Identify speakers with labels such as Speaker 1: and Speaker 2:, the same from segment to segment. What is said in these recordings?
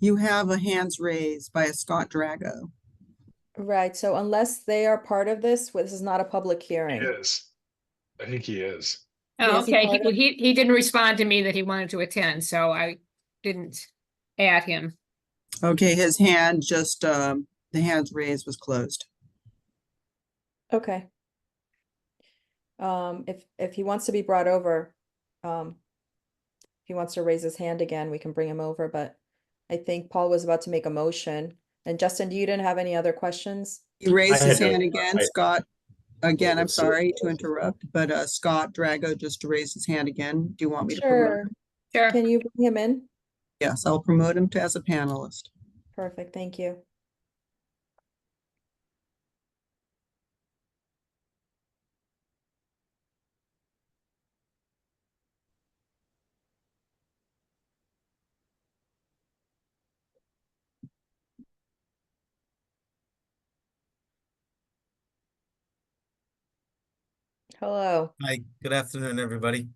Speaker 1: you have a hands raised by a Scott Drago.
Speaker 2: Right, so unless they are part of this, well, this is not a public
Speaker 3: He
Speaker 2: hearing.
Speaker 3: is. I think he is.
Speaker 4: Oh,
Speaker 2: Is he
Speaker 4: okay,
Speaker 2: part
Speaker 4: he, he, he didn't respond to me that he wanted to attend, so I didn't add him.
Speaker 1: Okay, his hand just, um, the hands raised was closed.
Speaker 2: Okay. Um, if, if he wants to be brought over, um, if he wants to raise his hand again, we can bring him over, but I think Paul was about to make a motion. And Justin, you didn't have any other questions?
Speaker 1: He raised his
Speaker 3: had no-
Speaker 1: hand again,
Speaker 3: I-
Speaker 1: Scott. Again, I'm
Speaker 3: that's it.
Speaker 1: sorry to interrupt, but, uh, Scott Drago just raised his hand again. Do you want me to promote?
Speaker 2: Sure,
Speaker 1: him?
Speaker 4: Sure,
Speaker 2: can you bring him in?
Speaker 1: Yes, I'll promote him to as a panelist.
Speaker 2: Perfect, thank you. Hello,
Speaker 5: Hi, good afternoon, everybody.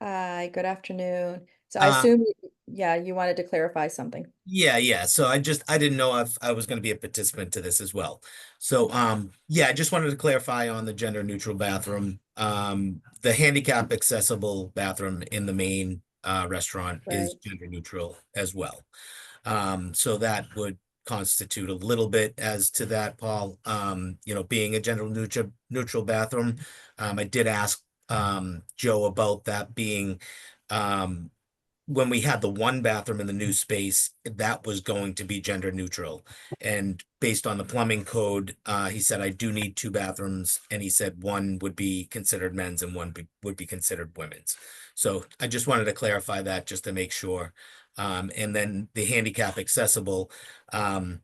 Speaker 2: hi, good afternoon. So I
Speaker 5: Uh,
Speaker 2: assume, yeah, you wanted to clarify something.
Speaker 5: Yeah, yeah. So I just, I didn't know if I was going to be a participant to this as well. So, um, yeah, I just wanted to clarify on the gender neutral bathroom. Um, the handicap accessible bathroom in the main, uh, restaurant is
Speaker 2: Right.
Speaker 5: gender neutral as well. Um, so that would constitute a little bit as to that, Paul, um, you know, being a gender neutral, neutral bathroom. Um, I did ask, um, Joe about that being, um, when we had the one bathroom in the new space, that was going to be gender neutral. And based on the plumbing code, uh, he said, I do need two bathrooms. And he said one would be considered men's and one be- would be considered women's. So I just wanted to clarify that just to make sure. Um, and then the handicap accessible, um,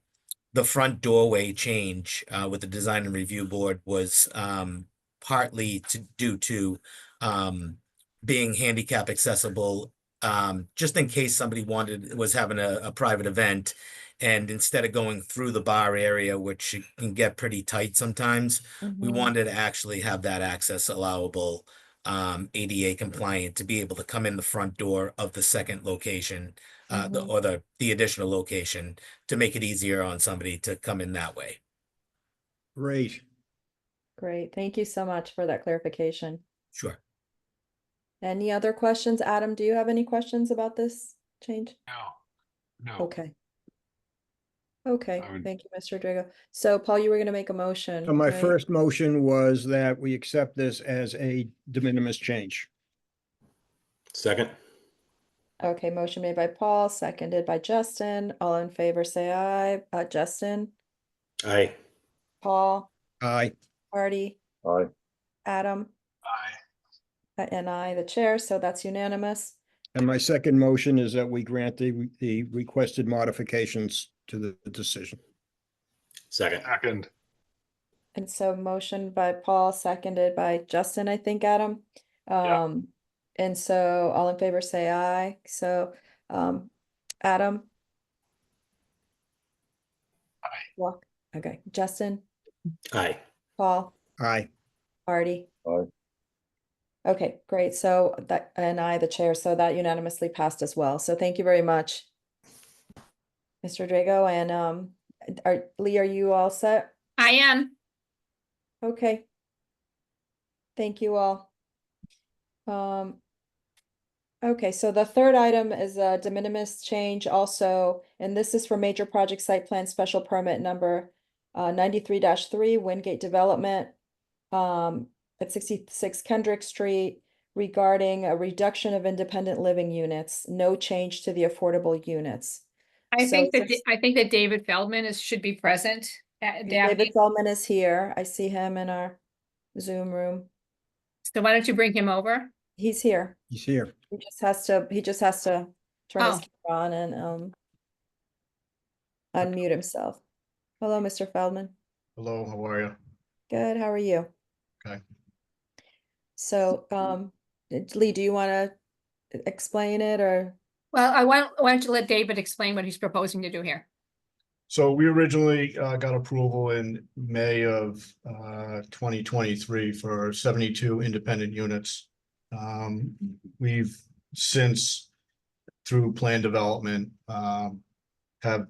Speaker 5: the front doorway change, uh, with the design and review board was, um, partly to, due to, um, being handicap accessible um, just in case somebody wanted, was having a, a private event. And instead of going through the bar area, which it can get pretty tight sometimes, we
Speaker 2: Mhm.
Speaker 5: wanted to actually have that access allowable, um, ADA compliant to be able to come in the front door of the second location, uh, the,
Speaker 2: Mhm.
Speaker 5: or the, the additional location to make it easier on somebody to come in that way.
Speaker 6: Great.
Speaker 2: Great, thank you so much for that clarification.
Speaker 5: Sure.
Speaker 2: Any other questions? Adam, do you have any questions about this change?
Speaker 3: No, no.
Speaker 2: Okay. Okay,
Speaker 3: I would-
Speaker 2: thank you, Mr. Drago. So Paul, you were gonna make a motion.
Speaker 6: So my
Speaker 2: right?
Speaker 6: first motion was that we accept this as a de minimis change.
Speaker 7: Second.
Speaker 2: Okay, motion made by Paul, seconded by Justin. All in favor, say aye. Uh, Justin,
Speaker 7: Aye.
Speaker 2: Paul,
Speaker 6: Aye.
Speaker 2: Artie,
Speaker 7: Aye.
Speaker 2: Adam,
Speaker 3: Aye.
Speaker 2: uh, and I, the chair, so that's unanimous.
Speaker 6: And my second motion is that we grant the, the requested modifications to the the decision.
Speaker 7: Second.
Speaker 3: Second.
Speaker 2: And so motion by Paul, seconded by Justin, I think, Adam.
Speaker 3: Yeah.
Speaker 2: Um, and so all in favor say aye. So, um, Adam?
Speaker 3: Aye.
Speaker 2: Walk, okay, Justin,
Speaker 7: Aye.
Speaker 2: Paul,
Speaker 6: Aye.
Speaker 2: Artie?
Speaker 7: Aye.
Speaker 2: Okay, great. So that, and I, the chair, so that unanimously passed as well. So thank you very much. Mr. Drago and, um, are, Lee, are you all set?
Speaker 4: I am.
Speaker 2: Okay. Thank you all. Um. Okay, so the third item is a de minimis change also, and this is for major project site plan special permit number uh ninety-three three Wingate Development um at sixty-six Kendrick Street regarding a reduction of independent living units, no change to the affordable units.
Speaker 4: I
Speaker 2: So
Speaker 4: think that,
Speaker 2: since-
Speaker 4: Da- I think that David Feldman is, should be present. Da-
Speaker 2: David
Speaker 4: Daphne,
Speaker 2: Feldman is here. I see him in our Zoom room.
Speaker 4: so why don't you bring him over?
Speaker 2: He's here.
Speaker 6: He's here.
Speaker 2: He just has to, he just has to turn his
Speaker 4: Oh.
Speaker 2: camera on and um unmute himself. Hello, Mr. Feldman.
Speaker 3: Hello, how are you?
Speaker 2: Good, how are you?
Speaker 3: Okay.
Speaker 2: So, um, Lee, do you want to explain it or?
Speaker 4: Well, I want, why don't you let David explain what he's proposing to do here?
Speaker 3: So we originally uh, got approval in May of uh, 2023 for 72 independent units. Um, We've since, through plan development, um, have